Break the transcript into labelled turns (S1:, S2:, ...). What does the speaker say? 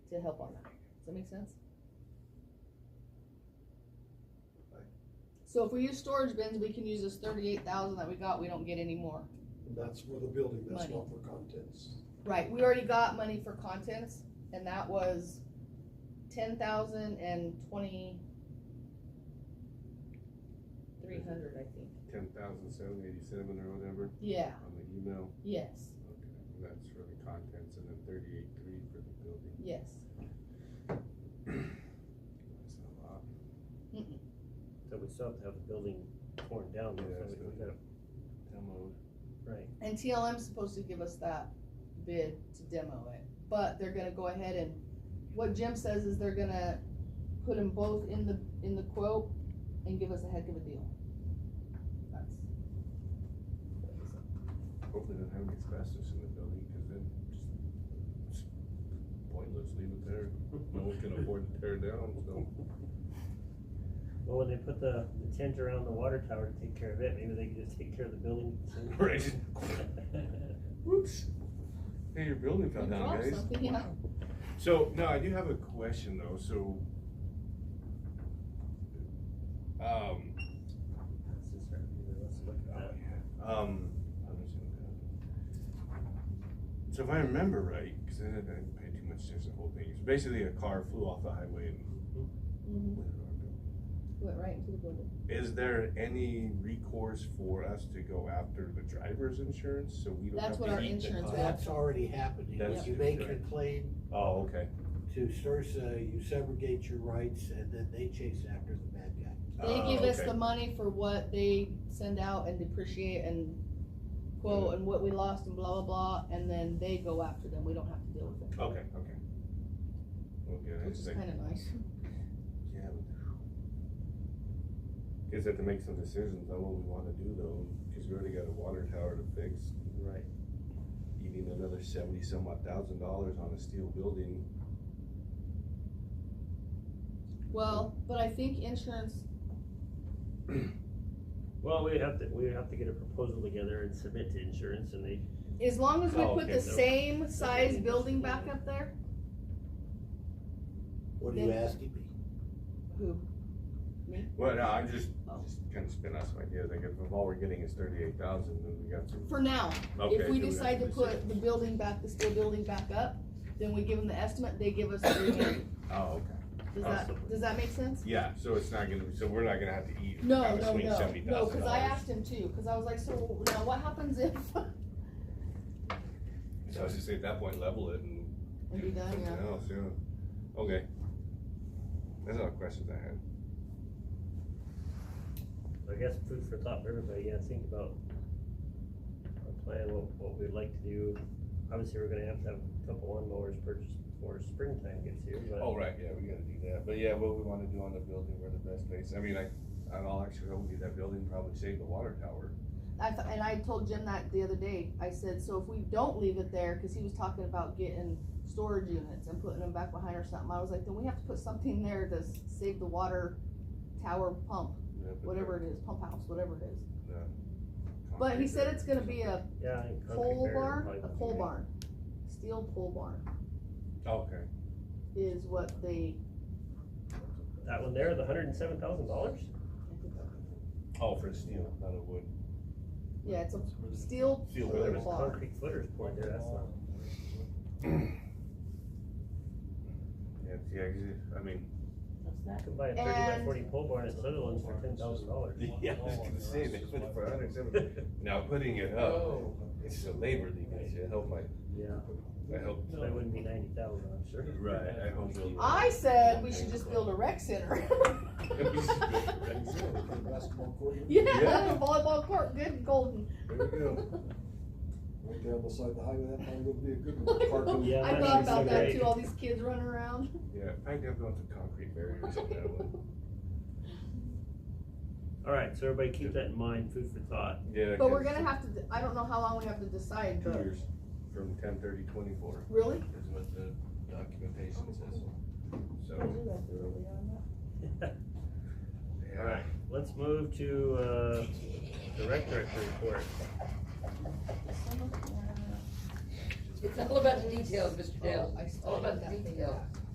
S1: to help on that. Does that make sense?
S2: Right.
S1: So if we use storage bins, we can use this thirty-eight thousand that we got, we don't get any more.
S2: And that's for the building, that's
S1: Money.
S2: not for contents.
S1: Right, we already got money for contents, and that was ten thousand and twenty. Three hundred, I think.
S3: ten thousand seven eighty-seven or whatever
S1: Yeah,
S3: on the email.
S1: yes,
S3: Okay, and that's for the contents and then thirty-eight three for the building.
S1: yes.
S3: That's a lot.
S1: Mm-mm.
S4: So we still have to have the building torn down, so
S3: Yeah, that's
S4: we we gotta,
S3: Demo.
S4: right,
S1: And TLM's supposed to give us that bid to demo it, but they're gonna go ahead and, what Jim says is they're gonna put them both in the, in the quote and give us a heck of a deal. That's.
S3: Hopefully they don't have any asbestos in the building, cause then it's pointless, leave it there. No one can afford to tear it down, so.
S4: well, when they put the, the tent around the water tower to take care of it, maybe they could just take care of the building.
S3: Right. Whoops. Hey, your building fell
S1: You
S3: down,
S1: dropped
S3: guys.
S1: something, yeah.
S3: Wow. So, no, I do have a question though, so. Um, um, I'm just gonna- so if I remember right, cause I didn't I didn't pay too much attention to the whole thing, it's basically a car flew off the highway and.
S1: Mhm.
S3: landed on our building.
S1: Went right into the building.
S3: Is there any recourse for us to go after the driver's insurance, so we don't
S1: That's
S3: have
S1: what our
S3: to eat the
S1: insurance
S3: cost?
S1: would-
S5: That's already happening.
S3: That's
S5: You make your
S3: correct.
S5: claim
S3: Oh, okay.
S5: to Sursa, you subrogate your rights, and then they chase after the bad guy.
S1: They
S3: Oh,
S1: give us
S3: okay.
S1: the money for what they send out and depreciate and
S3: Mm-hmm.
S1: quote and what we lost and blah, blah, blah, and then they go after them, we don't have to deal with it.
S3: Okay, okay. Okay, I
S1: Which
S3: just
S1: is
S3: like,
S1: kinda nice.
S3: yeah. but- Guess I have to make some decisions on what we wanna do though, cause we already got a water tower to fix,
S4: Right,
S3: eating another seventy some odd thousand dollars on a steel building.
S1: Well, but I think insurance
S4: well, we'd have to, we'd have to get a proposal together and submit to insurance, and they,
S1: As long as we
S4: Oh,
S1: put
S4: okay,
S1: the
S4: so-
S1: same size
S4: okay.
S1: building back up there,
S5: What are you
S1: Then-
S5: asking me?
S1: who,
S3: Well, no, I'm just,
S1: Oh.
S3: just kinda spinning out some ideas, like if all we're getting is thirty-eight thousand, then we got to.
S1: for now,
S3: Okay,
S1: if we
S3: do have
S1: decide to put
S3: decide?
S1: the building back, the steel building back up, then we give them the estimate, they give us the remaining.
S3: Oh, okay,
S1: Does that,
S4: Awesome.
S1: does that make sense?
S3: yeah, so it's not gonna, so we're not gonna have to eat.
S1: No,
S3: have to
S1: no,
S3: swing
S1: no,
S3: $70,000
S1: no, cause I asked him too, cause I was like, so now what happens if? Are
S3: So I was just saying, at that point, level it and
S1: you done,
S3: Something
S1: yeah?
S3: else, yeah. Okay. That's all the questions I had.
S4: I guess food for thought for everybody, yeah, think about our plan, what, what we'd like to do. Obviously, we're gonna have to have a couple lawnmowers purchased before springtime gets here, but.
S3: Oh, right, yeah, we gotta do that, but yeah, what we wanna do on the building, we're the best place, I mean, I, on all actuality, that building probably saved the water tower.
S1: I, th- and I told Jim that the other day. I said, so if we don't leave it there, because he was talking about getting storage units and putting them back behind or something, I was like, then we have to put something there to s- save the water tower pump,
S3: Yeah, but
S1: whatever it is, pump house, whatever it is.
S3: the
S1: But he
S3: concrete
S1: said
S3: there-
S1: it's gonna be a
S4: Yeah. I think concrete
S1: pole
S4: barrier
S1: barn,
S4: probably
S1: a
S4: won't be
S1: pole
S4: made.
S1: barn, steel pole barn
S3: Okay.
S1: is what they.
S4: That one there, the hundred and seven thousand dollars?
S3: Oh, for steel, not a wood.
S1: Yeah, it's a steel
S3: Steel
S4: Well, there was
S1: pole barn.
S4: concrete footers poured there, that's not.
S3: Yeah, yeah, 'cause it- I mean.
S4: You can buy a thirty by
S1: And-
S4: forty pole barn at Sutherland's for ten thousand dollars.
S3: Yeah, I was gonna say, they put it for a hundred and seventy. Now, putting it up, it's a labor leakage, I hope I,
S4: Yeah,
S3: I hope.
S4: so it wouldn't be ninety thousand, I'm sure.
S3: Right, I hope. it'll-
S1: I said we should just build a rec center.
S2: Basketball court,
S1: Yeah, volleyball court, good golden.
S3: There we go.
S2: right down beside the highway, that probably would be a good one. Park them.
S4: Yeah,
S1: I
S4: that
S1: thought
S4: is
S1: about that
S4: great.
S1: too, all these kids running around.
S3: Yeah, I think I'm going to concrete barriers on that one.
S4: Alright, so everybody keep that in mind, food for thought.
S3: Yeah.
S1: But we're gonna have to, d- I don't know how long we have to decide,
S3: Two
S1: but,
S3: years from ten thirty twenty-four
S1: really?
S3: is what the documentation says. So.
S4: Alright, let's move to, uh, the rec director report.
S6: It's all about the details, Mr. Dale.
S1: Oh, I
S6: All about the
S1: studied that thing
S6: details.
S1: back.